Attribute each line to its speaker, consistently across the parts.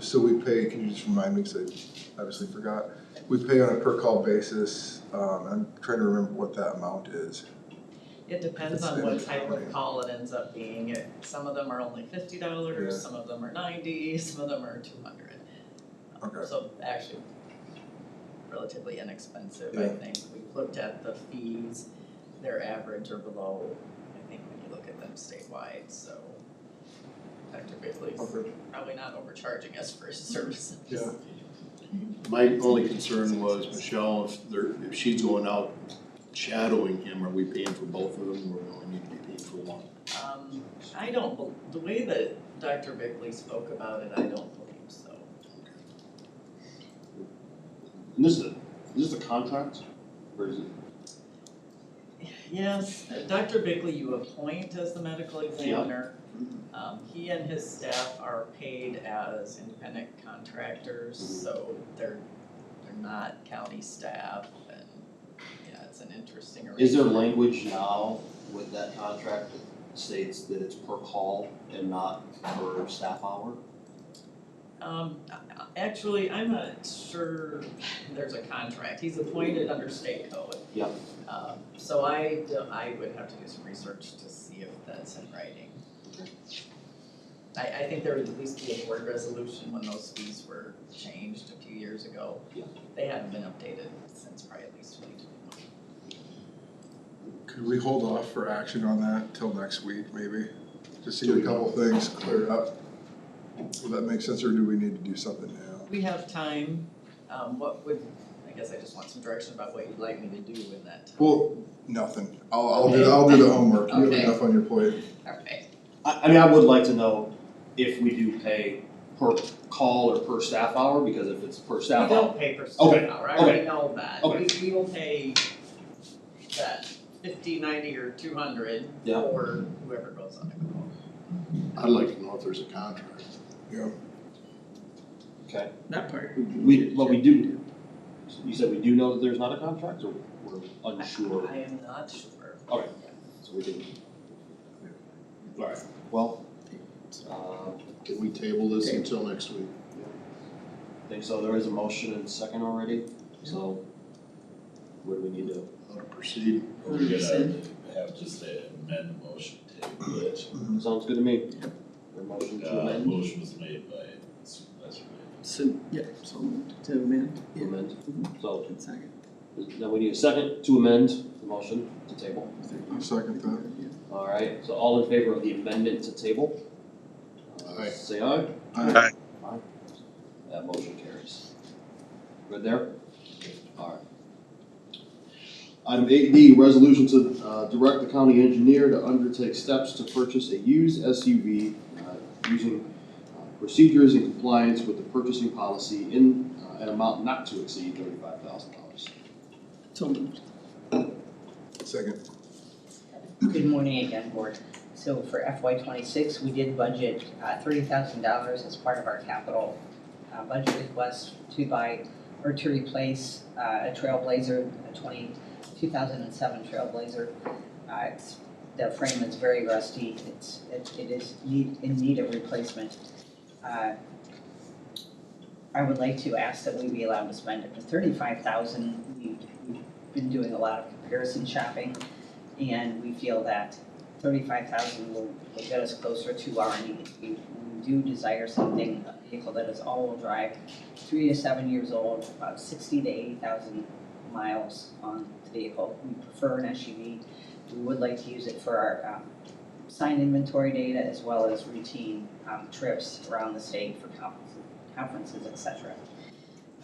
Speaker 1: so we pay, can you just remind me, because I obviously forgot, we pay on a per call basis, um, I'm trying to remember what that amount is.
Speaker 2: It depends on what type of call it ends up being, It- some of them are only fifty
Speaker 1: Yeah.
Speaker 2: dollars, some of them are ninety, some of them are two hundred.
Speaker 1: Okay.
Speaker 2: So actually relatively inexpensive, I
Speaker 1: Yeah.
Speaker 2: think, we've looked at the fees, they're average or below, I think when you look at them statewide, so effectively,
Speaker 1: Okay.
Speaker 2: probably not overcharging us for services.
Speaker 1: Yeah.
Speaker 3: My only concern was Michelle, if there, if she's going out shadowing him, are we paying for both of them or we only need to be paying for one?
Speaker 2: Um, I don't, bel- the way that Dr. Bickley spoke about it, I don't believe so.
Speaker 3: And this is, a- this is a contract, or is it?
Speaker 2: Yes, Dr. Bickley, you appoint as the medical examiner. Um, he and his staff are paid as independent contractors,
Speaker 4: Mm-hmm.
Speaker 2: so they're, they're not county staff and, yeah, it's an interesting arrangement.
Speaker 4: Is there language now with that contract that states that it's per call and not per staff hour?
Speaker 2: Um, a- actually, I'm not sure there's a contract, he's appointed under state code.
Speaker 4: Yep.
Speaker 2: Um, so I, d- I would have to do some research to see if that's in writing. I, I think there would at least be a board resolution when those fees were changed a few years ago.
Speaker 4: Yeah.
Speaker 2: They haven't been updated since probably at least twenty twenty.
Speaker 1: Could we hold off for action on that till next week, maybe? Just to get a couple things cleared up? Will that make sense, or do we need to do something now?
Speaker 2: We have time, um, what would, I guess I just want some direction about what you'd like me to do in that time.
Speaker 1: Well, nothing, I'll, I'll do, I'll do the homework, you have
Speaker 2: Okay.
Speaker 1: enough on your plate.
Speaker 2: Alright,
Speaker 4: I, I mean, I would like to know if we do pay per call or per staff hour, because if it's per
Speaker 2: we
Speaker 4: staff hour.
Speaker 2: don't pay per
Speaker 4: Okay,
Speaker 2: student hour, I already
Speaker 4: okay,
Speaker 2: know that, we,
Speaker 4: okay.
Speaker 2: we will pay that fifty, ninety, or two hundred
Speaker 4: Yeah.
Speaker 2: for whoever goes on the call.
Speaker 3: I'd like to know if there's a contract.
Speaker 4: Okay.
Speaker 2: That part.
Speaker 4: We, but we do, you said we do know that there's not a contract, or we're unsure,
Speaker 2: I am not sure.
Speaker 4: Okay. so we didn't.
Speaker 3: Alright,
Speaker 4: Well, um,
Speaker 3: can we table this until next week?
Speaker 4: I think so, there is a motion and second already, so what do we need to?
Speaker 3: How to proceed?
Speaker 5: We're gonna have just a amend the motion table it.
Speaker 4: Sounds good to me. Your motion to
Speaker 5: Uh,
Speaker 4: amend?
Speaker 5: motion was made by Supervisor Ray.
Speaker 6: So, yeah, so moved to amend,
Speaker 4: To amend. So,
Speaker 6: Uh, one second.
Speaker 4: now we need a second to amend the motion to table.
Speaker 1: I'll second that.
Speaker 4: All right, so all in favor of the amendment to table? Uh,
Speaker 3: Aye.
Speaker 4: Say aye.
Speaker 1: Aye.
Speaker 4: That motion carries. Good there? All right.
Speaker 3: Item eight D, resolution to, uh, direct the county engineer to undertake steps to purchase a used SUV, uh, using uh, procedures in compliance with the purchasing policy in, uh, an amount not to exceed thirty-five thousand dollars.
Speaker 6: So moved.
Speaker 1: Second,
Speaker 7: Good morning again, Board. So for FY twenty-six, we did budget uh, thirty thousand dollars as part of our capital uh, budget request to buy or to replace uh, a Trailblazer, a 20 2007 Trailblazer. Uh, It's, the frame is very rusty, it's, it it is need, in need of replacement. Uh, I would like to ask that we be allowed to spend up to thirty-five thousand. We've been doing a lot of comparison shopping and we feel that thirty-five thousand will, will get us closer to our need. We we do desire something, a vehicle that is all-wheel drive, three to seven years old, about sixty to eighty thousand miles on the vehicle. We prefer an SUV. We would like to use it for our, um, sign inventory data as well as routine, um, trips around the state for conferences, conferences, et cetera.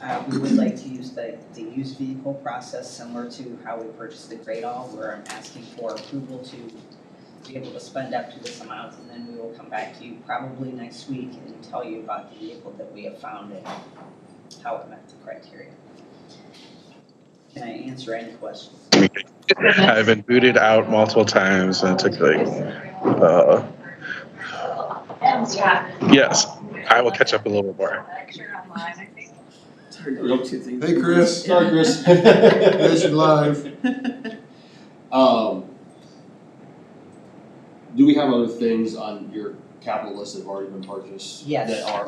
Speaker 7: Uh, we would like to use the, the used vehicle process similar to how we purchased the Great All, where I'm asking for approval to be able to spend up to this amount, and then we will come back to you probably next week and tell you about the vehicle that we have found and how it met the criteria. Can I answer any questions?
Speaker 8: I've been booted out multiple times and it took like, uh, yes, I will catch up a little bit more.
Speaker 6: It's hard to do two things.
Speaker 1: hey Chris,
Speaker 3: Sorry, Chris. Mission live. Um, do we have other things on your capital list that have already been purchased?
Speaker 7: Yes.
Speaker 3: That are